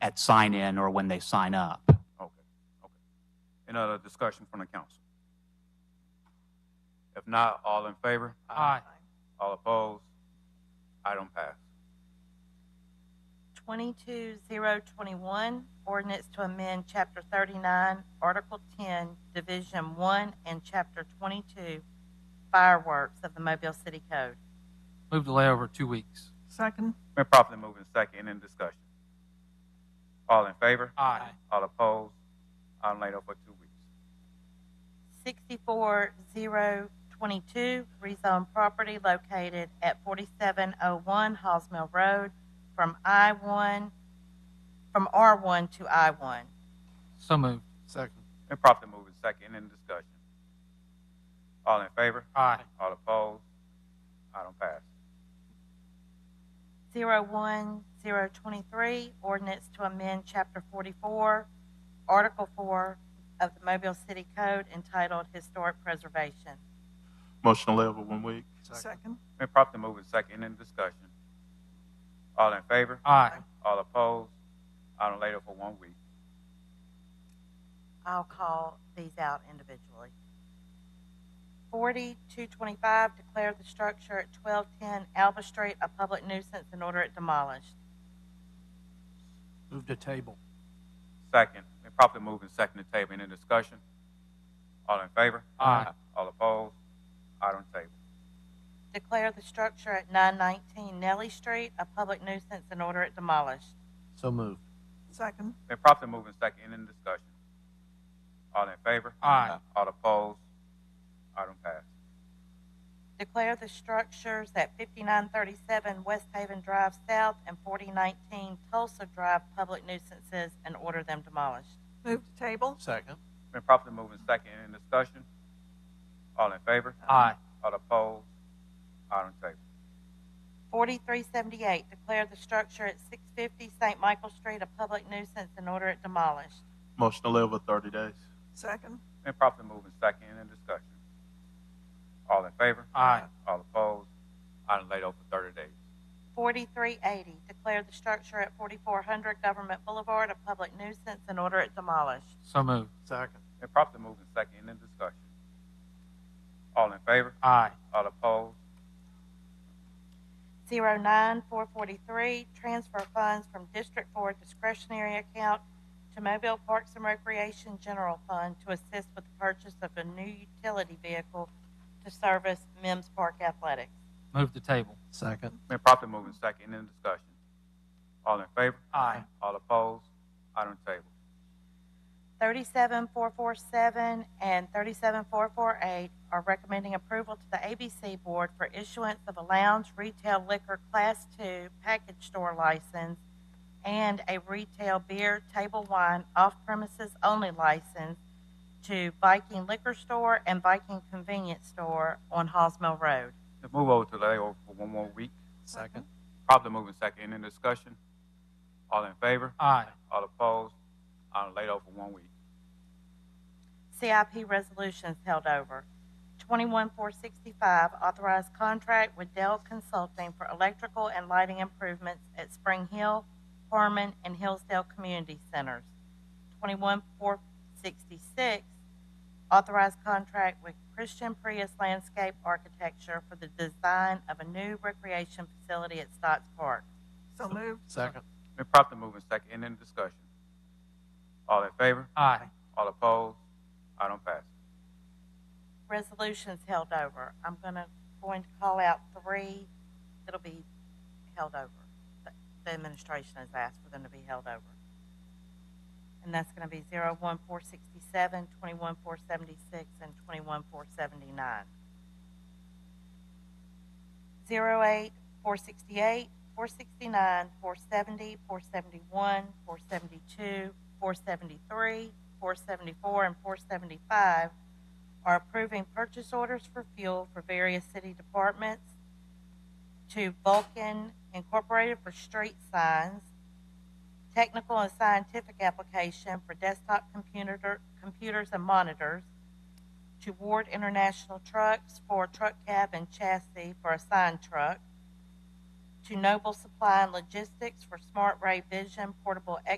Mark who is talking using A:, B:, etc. A: at sign-in or when they sign up.
B: Okay, okay. Any other discussion from the council? If not, all in favor?
C: Aye.
B: All opposed? Item pass.
D: 22021, ordinance to amend Chapter 39, Article 10, Division 1, and Chapter 22, fireworks of the Mobile City Code.
C: Move delay over two weeks.
E: Second.
B: Been properly moved in second, in discussion. All in favor?
C: Aye.
B: All opposed? Item laid over two weeks.
D: 64022, rezone property located at 4701 Halls Mill Road from I-1, from R1 to I-1.
C: So moved.
E: Second.
B: Been properly moved in second, in discussion. All in favor?
C: Aye.
B: All opposed? Item pass.
D: 01023, ordinance to amend Chapter 44, Article 4 of the Mobile City Code entitled Historic Preservation.
F: Motion to lay over one week.
E: Second.
B: Been properly moved in second, in discussion. All in favor?
C: Aye.
B: All opposed? Item laid over one week.
D: I'll call these out individually. 4225, declare the structure at 1210 Alba Street a public nuisance and order it demolished.
E: Move to table.
B: Second, been properly moved and seconded to table. Any discussion? All in favor?
C: Aye.
B: All opposed? Item table.
D: Declare the structure at 919 Nellie Street a public nuisance and order it demolished.
E: So moved. Second.
B: Been properly moved and seconded. Any discussion? All in favor?
C: Aye.
B: All opposed? Item passed.
D: Declare the structures at 5937 West Haven Drive South and 4019 Tulsa Drive public nuisances and order them demolished.
G: Move to table.
E: Second.
B: Been properly moved and seconded. Any discussion? All in favor?
C: Aye.
B: All opposed? Item table.
D: 4378, declare the structure at 650 St. Michael Street a public nuisance and order it demolished.
F: Motion to lay over thirty days.
G: Second.
B: Been properly moved and seconded. Any discussion? All in favor?
C: Aye.
B: All opposed? Item laid over thirty days.
D: 4380, declare the structure at 4400 Government Boulevard a public nuisance and order it demolished.
C: So moved.
E: Second.
B: Been properly moved and seconded. Any discussion? All in favor?
C: Aye.
B: All opposed?
D: 09443, transfer funds from District 4 discretionary account to Mobile Parks and Recreation General Fund to assist with the purchase of a new utility vehicle to service Mims Park Athletics.
C: Move the table.
E: Second.
B: Been properly moved and seconded. Any discussion? All in favor?
C: Aye.
B: All opposed? Item table.
D: 37447 and 37448 are recommending approval to the ABC Board for issuance of a lounge retail liquor Class II package store license and a retail beer, table wine, off-premises only license to Viking Liquor Store and Viking Convenience Store on Halls Mill Road.
B: Let's move over to layover for one more week.
E: Second.
B: Properly moved and seconded. Any discussion? All in favor?
C: Aye.
B: All opposed? Item laid over one week.
D: CIP resolutions held over. 21465, authorized contract with Dell Consulting for electrical and lighting improvements at Spring Hill, Harmon, and Hillsdale Community Centers. 21466, authorized contract with Christian Prius Landscape Architecture for the design of a new recreation facility at Stotts Park.
G: So moved.
E: Second.
B: Been properly moved and seconded. Any discussion? All in favor?
C: Aye.
B: All opposed? Item passed.
D: Resolutions held over. I'm gonna, going to call out three that'll be held over. that The administration has asked for them to be held over. And that's gonna be zero one four sixty-seven, twenty-one four seventy-six, and twenty-one four seventy-nine. Zero eight four sixty-eight, four sixty-nine, four seventy, four seventy-one, four seventy-two, four seventy-three, four seventy-four, and four seventy-five are approving purchase orders for fuel for various city departments to Vulcan Incorporated for street signs, technical and scientific application for desktop computer, computers and monitors, to Ward International Trucks for truck cab and chassis for a sign truck, to Noble Supply and Logistics for Smart Ray Vision portable